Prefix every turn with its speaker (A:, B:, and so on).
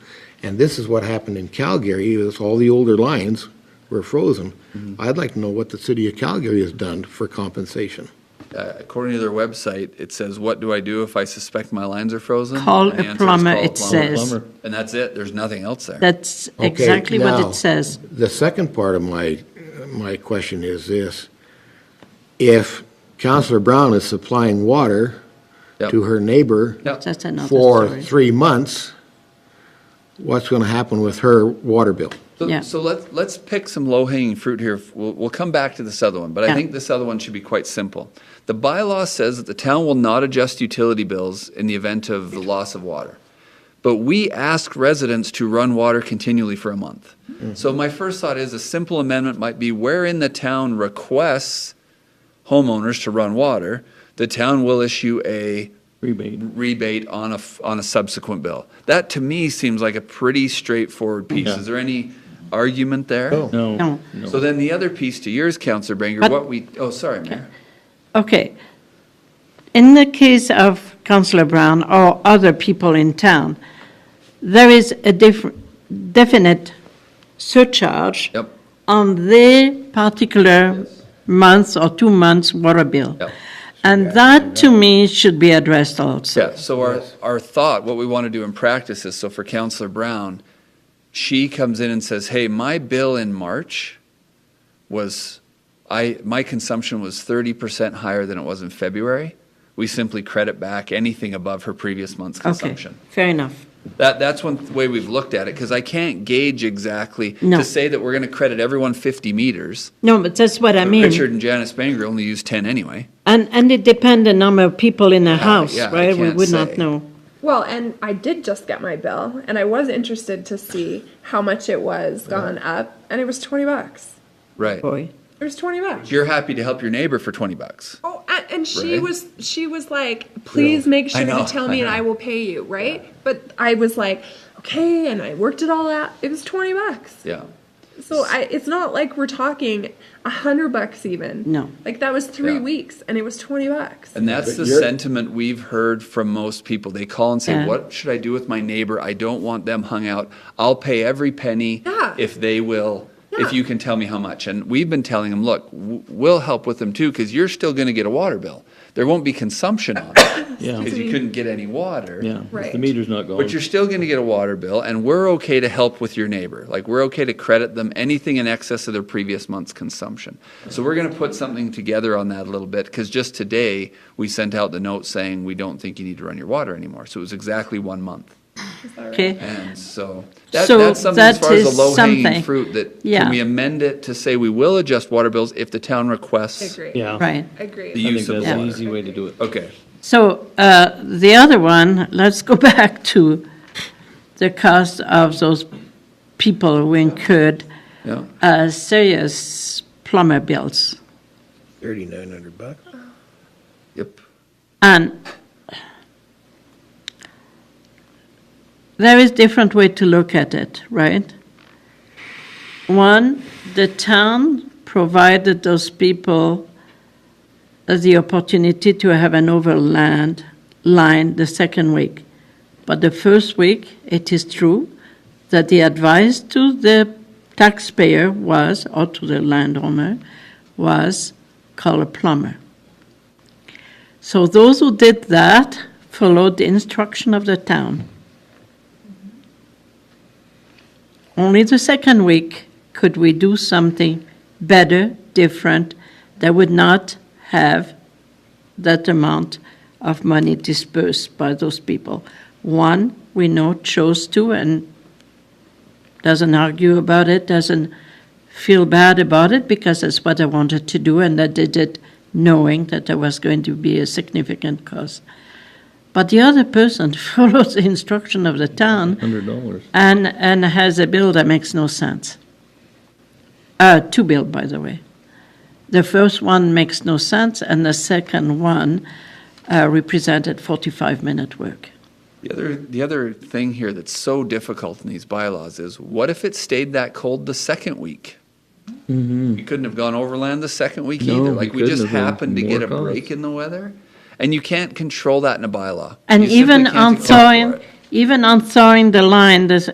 A: And this is what happened in Calgary, is all the older lines were frozen.
B: Mm-hmm.
A: I'd like to know what the city of Calgary has done for compensation.
B: Uh, According to their website, it says, what do I do if I suspect my lines are frozen?
C: Call
B: And the answer
C: a
B: is
C: plumber,
B: call a
C: it
B: plumber.
C: says. Plumber.
B: And that's it, there's nothing else there.
C: That's
A: Okay,
C: exactly what
A: now-
C: it says.
A: The second part of my, my question is this. If Counselor Brown is supplying water
B: Yep.
A: to her neighbor
B: Yep.
C: That's another
A: for
C: story.
A: three months, what's going to happen with her water bill?
B: So,
C: Yeah.
B: so let's, let's pick some low-hanging fruit here. We'll, we'll come back to this other one, but I
C: Yeah.
B: think this other one should be quite simple. The bylaw says that the town will not adjust utility bills in the event of the loss of water. But we ask residents to run water continually for a month. So my first thought is a simple amendment might be wherein the town requests homeowners to run water, the town will issue a
D: Rebate.
B: rebate on a, f- on a subsequent bill. That to me seems like a pretty straightforward piece.
D: Yeah.
B: Is there any argument there?
A: No.
D: No.
C: No.
B: So then the other piece to yours, Counselor Banger,
C: But-
B: what we, oh, sorry, Mayor.
C: Okay. In the case of Councillor Brown or other people in town, there is a diff- definite surcharge
B: Yep.
C: on their particular
B: Yes.
C: month or two months water bill.
B: Yep.
C: And that, to me, should be addressed also.
B: Yeah, so our, our thought, what we want to do in practice is, so for Counselor Brown, she comes in and says, hey, my bill in March was, I, my consumption was thirty percent higher than it was in February. We simply credit back anything above her previous month's
C: Okay,
B: consumption.
C: fair enough.
B: That, that's one way we've looked at it, because I can't gauge exactly,
C: No.
B: to say that we're going to credit everyone 50 meters.
C: No, but that's what I
B: Uh, Richard
C: mean.
B: and Janice Banger only use 10 anyway.
C: And, and it depends the number of people in a house,
B: Uh, yeah, I
C: right? We
B: can't
C: would not
B: say.
C: know.
E: Well, and I did just get my bill, and I was interested to see how much it was gone up, and it was twenty bucks.
B: Right.
C: Boy,
E: It was twenty bucks.
B: You're happy to help your neighbor for 20 bucks.
E: Oh, and, and she
B: Right.
E: was she was like, "Please make
B: I
E: sure
B: know,
E: to tell
B: I
E: me, and
B: know.
E: I will pay you." Right? But I was like, "Okay," and I worked it all out. It was twenty bucks.
B: Yeah.
E: So I, it's not like we're talking a hundred bucks even.
C: No.
E: Like that was three
B: Yeah.
E: weeks, and it was twenty bucks.
B: And that's the sentiment we've heard from most people. They call and say,
C: Yeah.
B: What should I do with my neighbor? I don't want them hung out. I'll pay every penny
E: Yeah.
B: if they will. If
E: Yeah.
B: you can tell me how much. And we've been telling them, look, w- we'll help with them too, because you're still going to get a water bill. There won't be consumption on it
D: Yeah,
B: because you
E: me.
B: couldn't get any water.
D: yeah. If The
E: Right.
D: meter's not going.
B: But you're still going to get a water bill, and we're okay to help with your neighbor. Like, we're okay to credit them anything in excess of their previous month's consumption. So, we're going to put something together on that a little bit because just today we sent out the note saying we don't think you need to run your water anymore. So, it was exactly one month.
C: okay.
B: And so, that,
C: So
B: that's something as
C: that
B: far as
C: is
B: the low hanging
C: something.
B: fruit that
C: Yeah.
B: can we amend it to say we will adjust water bills if the town requests
E: Agree.
D: Yeah.
C: Right.
E: Agree.
B: the
D: I
B: use
D: think
B: of
D: that's an
B: water.
D: easy way to do it.
B: Okay.
C: So uh, the other one, let's go back to the cost of those people who incurred
B: Yeah.
C: uh, serious plumber bills.
A: Thirty-nine hundred bucks?
B: Yep.
C: And there is different way to look at it, right? One, the town provided those people the opportunity to have an overland line the second week. But the first week, it is true that the advice to the taxpayer was, or to the landowner, was call a plumber. So those who did that followed the instruction of the town. Only the second week could we do something better, different, that would not have that amount of money dispersed by those people. One, we know chose to and doesn't argue about it, doesn't feel bad about it because that's what I wanted to do and I did it knowing that there was going to be a significant cost. But the other person follows the instruction of the town
D: Hundred dollars.
C: and, and has a bill that makes no sense. Uh, two bill, by the way. The first one makes no sense, and the second one uh, represented 45 minute work.
B: The other, the other thing here that's so difficult in these bylaws is what if it stayed that cold the second week? You couldn't have gone overland the second week
D: Mm-hmm. No,
B: either.
D: you
B: Like we
D: couldn't
B: just
D: have. There were
B: happened to get a
D: more
B: break
D: costs.
B: in the weather, and you can't control that in a bylaw.
C: And
B: You simply
C: even um,
B: can't
C: on
B: account for
C: thawing,
B: it.
C: even on thawing the line, this,